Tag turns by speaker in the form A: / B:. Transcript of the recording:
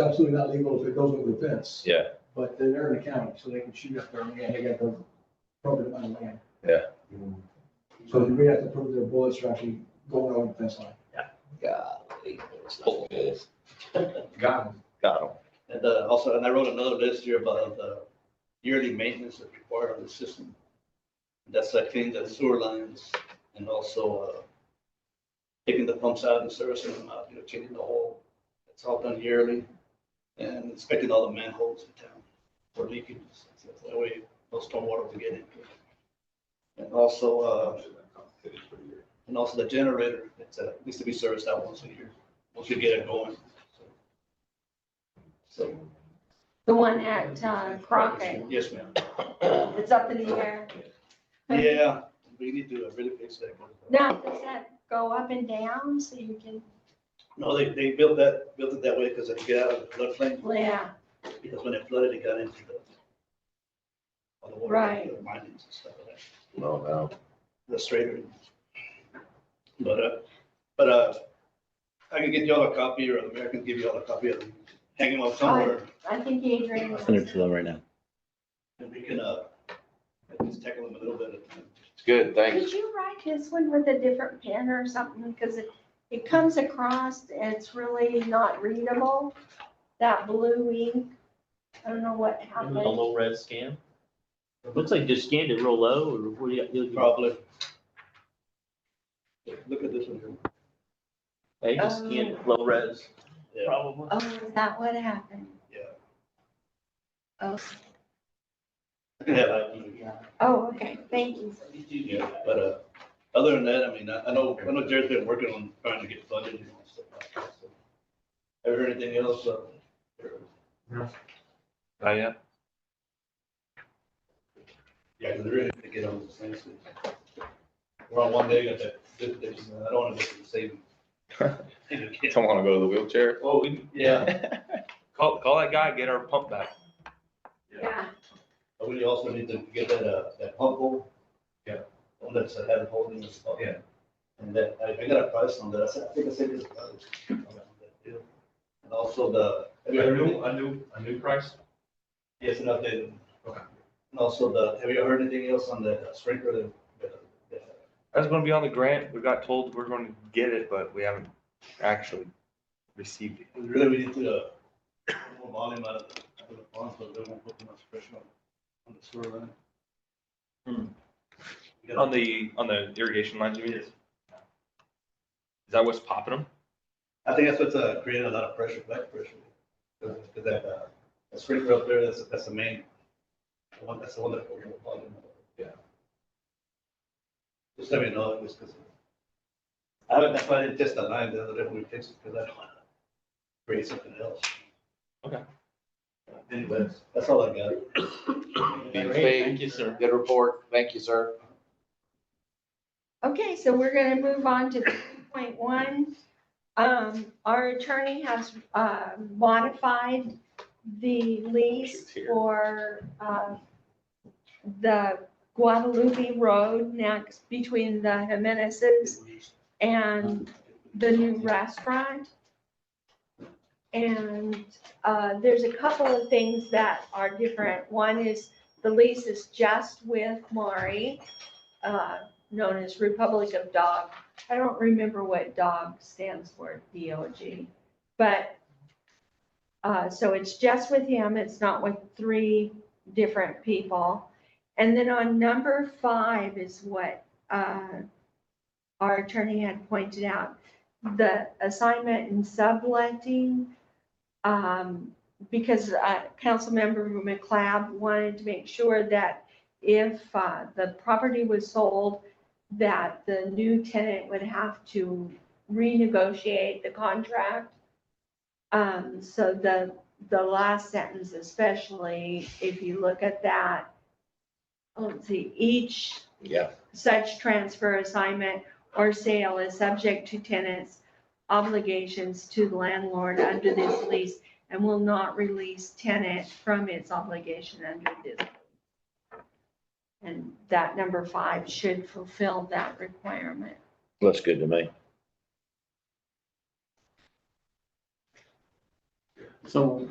A: absolutely not legal if it goes over the fence.
B: Yeah.
A: But they're- they're in the county, so they can shoot up their land, they got the appropriate amount of land.
B: Yeah.
A: So we have to prove their bullets are actually going over the fence line.
C: Golly.
B: Full of holes.
D: Got it.
B: Got 'em.
C: And uh, also, and I wrote another list here about the yearly maintenance that's required of the system. That's like cleaning the sewer lines and also uh, taking the pumps out and servicing them out, you know, changing the whole. It's all done yearly and inspecting all the manholes in town for leakages. so That way, no stormwater will get in. And also, uh, and also the generator, it's, uh, needs to be serviced out once a year, once you get it going. so. So
E: The one at uh, Crockett,
C: Yes, ma'am.
E: it's up in the air.
C: Yeah, we need to really fix that one.
E: Now, does that go up and down so you can,
C: No, they, they built that, built it that way because it get out of the floodplain,
E: yeah,
C: because when it flooded, it got into the all the water,
E: Right.
C: the mines and stuff like that,
B: No, no.
C: the straighter. But, uh, but, uh, I can get y'all a copy or the mayor can give y'all a copy of them, hang them up somewhere
E: I think Adrian.
F: Send it to them right now.
C: and we can, uh, just tackle them a little bit. uh,
B: It's good, thanks.
E: Did you write this one with a different pen or something? Because it, it comes across, it's really not readable, that blue ink. I don't know what
G: And with a
E: happened.
G: low res scan. It Looks like just scanned it real low or what do you- you? you-
C: Probably. Look at this one here.
G: They just scanned it low res.
C: Yeah.
G: Probably.
E: Oh, is that what happened?
C: Yeah.
E: Oh,
C: Yeah, like,
E: oh, okay, thank you.
C: Yeah, but, uh, other than that, I mean, I, I know, I know Jared's been working on trying to get funded and stuff like that, so. Have you heard anything else, uh?
B: Oh, yeah.
C: Yeah, because they're ready to get on the same thing. We're on one day, got that, this- this, uh, I don't want to miss the saving.
B: Don't wanna go to the wheelchair.
C: Oh, we, yeah,
B: Call, call that guy, get our pump back.
E: Yeah.
C: but we also need to get that, uh, that pump hole.
D: Yeah.
C: One that's, uh, had holding this pump.
D: Yeah.
C: And that, I, I got a price on that, I said, I think I said this. uh, on that deal. And also the.
D: A new, a new, a new price?
C: Yes, an updated.
D: Okay.
C: And also the, have you heard anything else on the uh, sprinkler? the- the- the-
B: That's gonna be on the grant. We got told we're gonna get it, but we haven't actually received it.
C: Really, we need to uh, pull volume out of the, out of the pond, so they won't put too much pressure on, on the sewer line.
B: Hmm.
C: We gotta-
B: On the, on the irrigation lines, you mean? Is that what's popping them?
C: I think that's what's uh, created a lot of pressure, back pressure. Because that, uh, that sprinkler up there, that's, that's the main, the one, that's the one that. we're gonna plug in.
B: Yeah.
C: Just let me know, just because. I haven't, that's why I didn't test the line the other day when we fixed it, because I don't want to create something else.
B: Okay.
C: Anyways, that's all I got.
G: Great, thank you, sir.
F: Good report. Thank you, sir.
E: Okay, so we're gonna move on to three point one. Um, our attorney has, uh, modified the lease
B: She's here.
E: for, uh, the Guadalupe Road next between the Jimenez's and the new restaurant. And uh, there's a couple of things that are different. One is the lease is just with Mari, uh, known as Republic of Dog. I don't remember what dog stands for, D-O-G. But, uh, so it's just with him, it's not with three different people. And then on number five is what uh, our attorney had pointed out the assignment and subletting. um, Because uh, Councilmember McLeod wanted to make sure that if uh, the property was sold, that the new tenant would have to renegotiate the contract. Um, So the, the last sentence especially, if you look at that, let's see, each
B: Yeah.
E: such transfer, assignment, or sale is subject to tenants' obligations to the landlord under this lease and will not release tenant from its obligation under this. lease. And that number five should fulfill that requirement.
F: Looks good to me.
H: So